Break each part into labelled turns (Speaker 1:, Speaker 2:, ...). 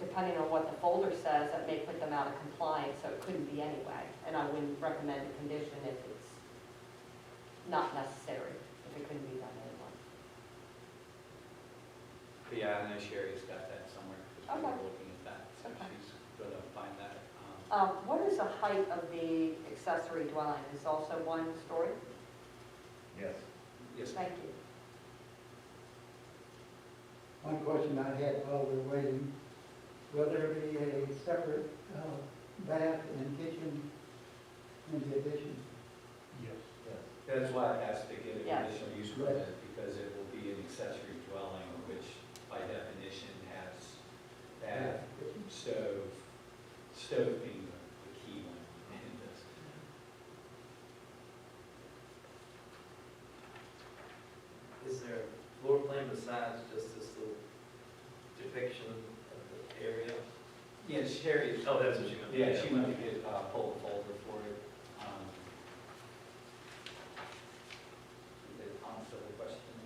Speaker 1: depending on what the folder says, that may put them out of compliance, so it couldn't be anyway. And I wouldn't recommend a condition if it's not necessary, if it couldn't be done anyway.
Speaker 2: But yeah, I know Sherry's got that somewhere, because we
Speaker 1: Okay.
Speaker 2: were looking at that, so
Speaker 1: Okay.
Speaker 2: she's gonna find that. um,
Speaker 1: Um, What is the height of the accessory dwelling? Is also one story?
Speaker 3: Yes.
Speaker 2: Yes,
Speaker 1: Thank you.
Speaker 4: One question I had while we we're waiting, will there be a separate uh, bath and kitchen in the addition?
Speaker 3: Yes.
Speaker 2: that's why it has to get a
Speaker 1: Yes.
Speaker 2: conditional use
Speaker 4: Right.
Speaker 2: permit, because it will be an accessory dwelling, which by definition has that stove, stove being the the key one in this.
Speaker 5: Is there a floor plan besides just this little depiction of the area?
Speaker 2: Yeah, Sherry,
Speaker 5: Oh, that's what you meant.
Speaker 2: yeah, she went to get, uh, pull a folder for it. um, Did it answer the question?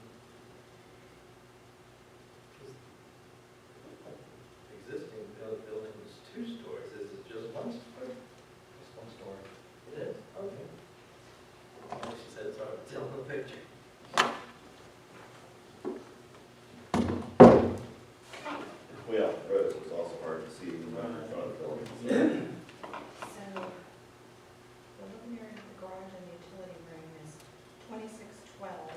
Speaker 5: Existing buil- building is two stories, is it just one story?
Speaker 2: Just one story.
Speaker 5: It is, okay. Well, She said it's hard to tell in the picture.
Speaker 3: Way off the road, so it's also hard to see when you're in front of the building.
Speaker 6: So, the living area, the garage, and the utility room is twenty-six twelve,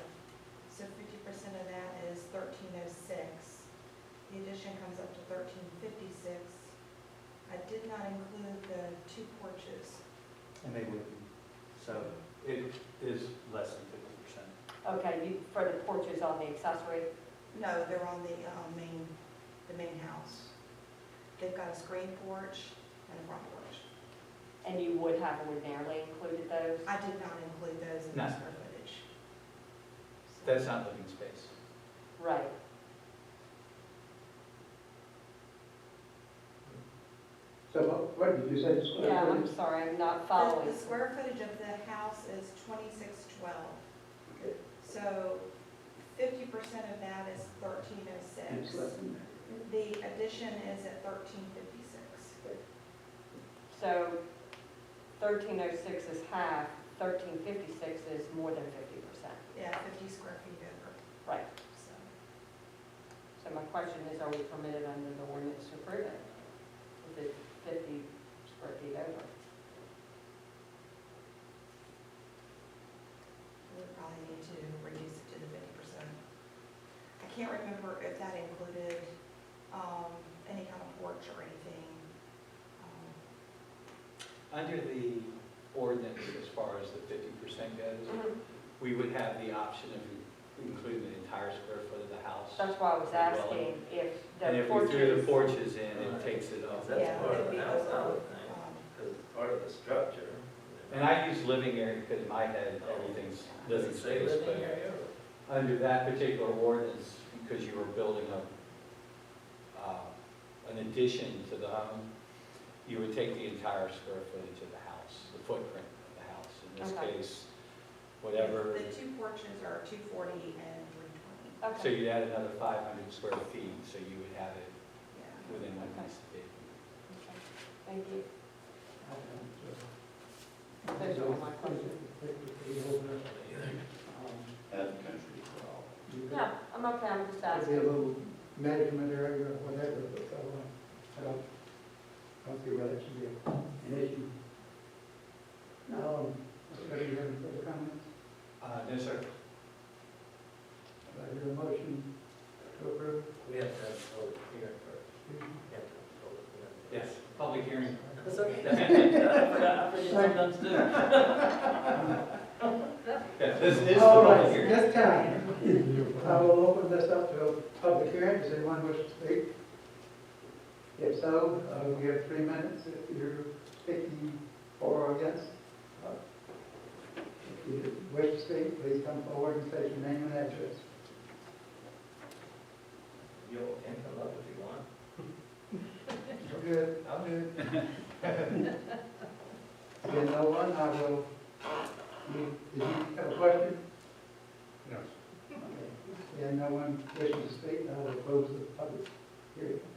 Speaker 6: so fifty percent of that is thirteen oh six. The addition comes up to thirteen fifty-six. I did not include the two porches.
Speaker 2: And they wouldn't, so it is less than fifty percent.
Speaker 1: Okay, you, for the porches on the accessory?
Speaker 6: No, they're on the, uh, main, the main house. They've got a screen porch and a front porch.
Speaker 1: And you would have ordinarily included those?
Speaker 6: I did not include those in the
Speaker 2: No.
Speaker 6: square footage. So-
Speaker 2: That's not living space.
Speaker 1: Right.
Speaker 4: So what- what did you say? the square
Speaker 1: Yeah, I'm
Speaker 4: footage?
Speaker 1: sorry, I'm not
Speaker 6: The
Speaker 1: following.
Speaker 6: the square footage of the house is twenty-six twelve.
Speaker 4: Okay.
Speaker 6: So fifty percent of that is thirteen oh
Speaker 4: It's
Speaker 6: six.
Speaker 4: less than that.
Speaker 6: The addition is at thirteen fifty-six.
Speaker 1: So thirteen oh six is half, thirteen fifty-six is more than fifty percent.
Speaker 6: Yeah, fifty square feet over,
Speaker 1: Right.
Speaker 6: so.
Speaker 1: So my question is, are we permitted under the ordinance to approve it? If it's fifty square feet over?
Speaker 6: We would probably need to reduce it to the fifty percent. I can't remember if that included, um, any kind of porch or anything. Um,
Speaker 2: Under the ordinance, as far as the fifty percent goes, we would have the option of including the entire square foot of the house.
Speaker 1: That's why I was
Speaker 2: Well,
Speaker 1: asking if Um,
Speaker 2: And
Speaker 1: the
Speaker 2: if we threw the
Speaker 1: porches.
Speaker 2: porches in, it takes it up.
Speaker 5: That's
Speaker 6: Yeah,
Speaker 5: part of
Speaker 6: it'd be
Speaker 5: the house, I
Speaker 6: over,
Speaker 5: would think,
Speaker 6: um,
Speaker 5: because it's part of the structure.
Speaker 2: And I use living area because in my head, everything's living
Speaker 5: Does it say
Speaker 2: space,
Speaker 5: living
Speaker 2: but
Speaker 5: area?
Speaker 2: under that particular ordinance, because you were building a, uh, an addition to the home, you would take the entire square footage of the house, the footprint of the house. In
Speaker 1: Okay.
Speaker 2: this case, whatever,
Speaker 6: The two porches are two forty and three
Speaker 2: so
Speaker 6: twenty,
Speaker 1: Okay,
Speaker 2: you'd add another 500 square feet, so you would have it
Speaker 6: yeah.
Speaker 2: within what needs to be.
Speaker 1: okay. thank you.
Speaker 4: I don't, uh,
Speaker 1: Those are my
Speaker 4: I don't think it would be over, um,
Speaker 3: And country as well.
Speaker 4: you
Speaker 1: No, I'm okay, I'm just
Speaker 4: could- could be a
Speaker 1: asking.
Speaker 4: little management area or whatever, but I don't- I don't, I don't see why that should be an issue. Now, um, does anybody have any further comments?
Speaker 2: Uh, No, sir.
Speaker 4: Do I hear a motion to approve?
Speaker 5: We have to have a public hearing first. We have to have a public hearing first.
Speaker 2: Yes, public hearing.
Speaker 5: That's okay. I forgot, I forget sometimes too.
Speaker 2: Yeah, This is the
Speaker 4: All
Speaker 2: public
Speaker 4: Oh, right,
Speaker 2: hearing.
Speaker 4: this time, I will open this up to a public hearing, does anyone wish to speak? If so, uh, we have three minutes, if you're speaking for or against. uh, If you wish to speak, please come forward and state your name and address.
Speaker 5: You all can come up if you want.
Speaker 4: You're good, I'm good. Again, no one, I will, you- did you have a question?
Speaker 3: No.
Speaker 4: Okay. Again, no one wishes to speak, I will close the public hearing.